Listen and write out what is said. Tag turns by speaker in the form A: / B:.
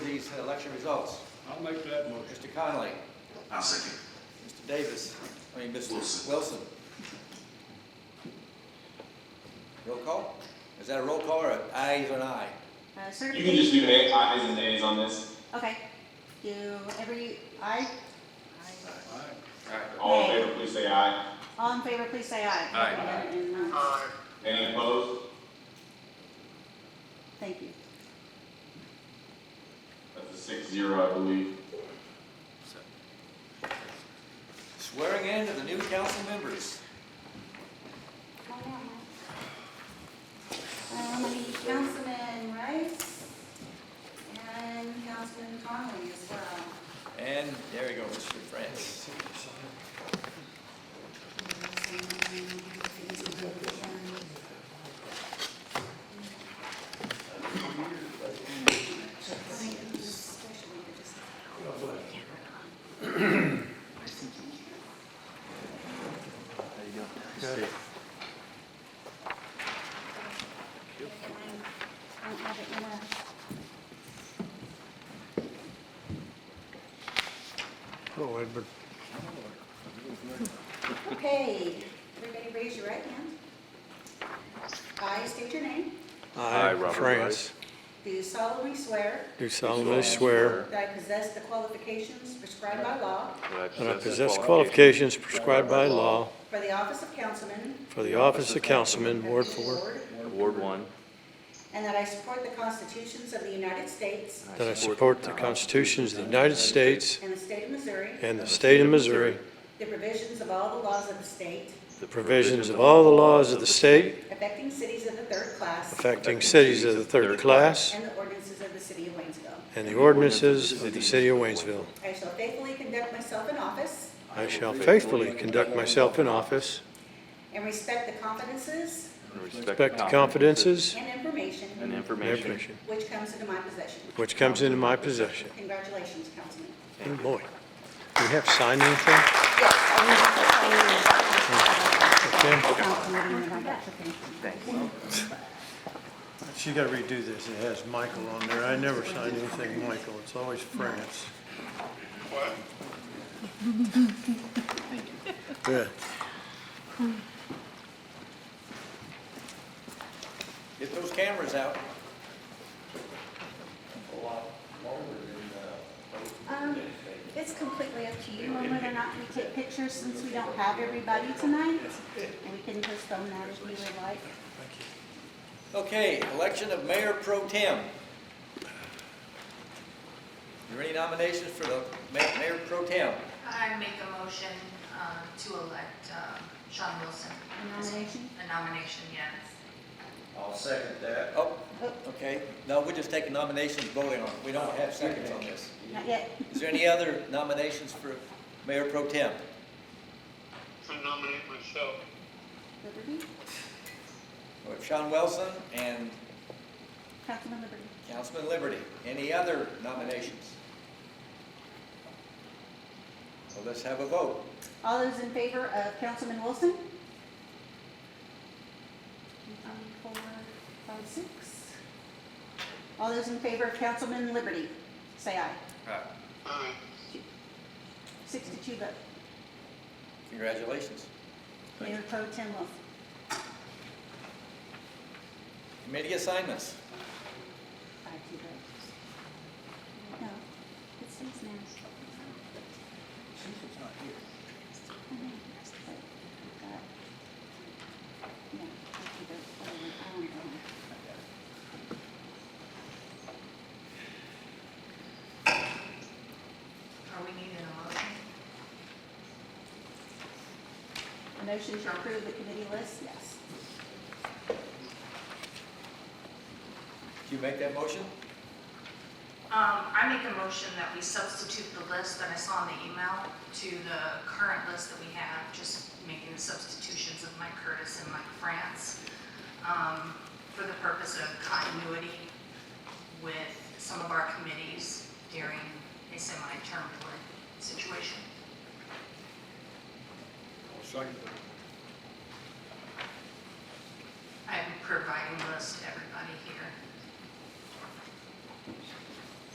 A: election results.
B: I'll make that motion.
A: Mr. Conley,
C: I'll second.
A: Mr. Davis, I mean, Mr.
C: Wilson.
A: Wilson. Roll call? Is that a roll call or an ayes or an aye?
D: Uh,
E: You can just
D: certification,
E: do a- ayes and nays on this,
D: okay. Do every, aye? Aye.
B: All right.
E: all in favor, please say aye.
D: All in favor, please say aye.
B: Aye.
D: And, uh,
E: Any opposed?
D: Thank you.
E: That's a six zero, I believe.
A: Swearing in of the new council members.
D: Um, Councilman Rice and Councilman Conley as well.
A: And there you go, Mr. France.
F: Hello, Edward.
D: Okay, everybody raise your right hand. I state your name.
F: I, France,
D: Do solemnly swear
F: do solemnly swear
D: that I possess the qualifications prescribed by law
F: that I possess qualifications prescribed by law
D: for the office of councilman
F: for the office of councilman, Ward
D: of the
F: 4,
D: ward,
G: Ward one.
D: and that I support the constitutions of the United States
F: that I support the constitutions of the United States
D: and the state of Missouri,
F: and the state of Missouri,
D: the provisions of all the laws of the state
F: the provisions of all the laws of the state
D: affecting cities of the third class
F: affecting cities of the third class
D: and the ordinances of the city of Waynesville.
F: and the ordinances of the city of Waynesville.
D: I shall faithfully conduct myself in office
F: I shall faithfully conduct myself in office,
D: and respect the confidences
F: respect the confidences
D: and information
G: And
F: and
G: information.
F: information
D: which comes into my possession.
F: which comes into my possession.
D: Congratulations, Councilman.
F: And boy, do we have signed anything?
D: Yes,
F: Okay.
D: Thank you.
F: She gotta redo this, it has Michael on there, I never sign anything Michael, it's always France. Good.
A: Get those cameras out.
D: Um, It's completely up to you on whether or not we take pictures since we don't have everybody tonight. And we can postpone that if we would like.
A: Okay, election of mayor pro tem. Are there any nominations for the ma- mayor pro tem?
H: I make a motion um, to elect um, Sean Wilson.
D: A nomination?
H: A nomination, yes.
C: I'll second that.
A: Oh, okay, no, we're just taking nominations, voting on, it. we don't have seconds on this.
D: Not yet.
A: Is there any other nominations for mayor pro tem?
I: I nominate myself.
D: Liberty?
A: We have Sean Wilson and
D: Councilman Liberty?
A: Councilman Liberty. Any other nominations? Well, let's have a vote.
D: All those in favor of Councilman Wilson? One, Four, five, six. All those in favor of Councilman Liberty, say aye.
I: Aye.
D: Six to two vote.
A: Congratulations.
D: Mayor Pro Tem Wilson.
A: Committee assignments.
D: Five two votes. No, it's six now. No, five two votes. I don't know.
H: Are we needing a motion?
D: A Motion to approve the committee list, yes.
A: Do you make that motion?
H: Um, I make a motion that we substitute the list that I saw in the email to the current list that we have, just making the substitutions of Mike Curtis and Mike France um, for the purpose of continuity with some of our committees during a semi-term situation.
B: I'll second that.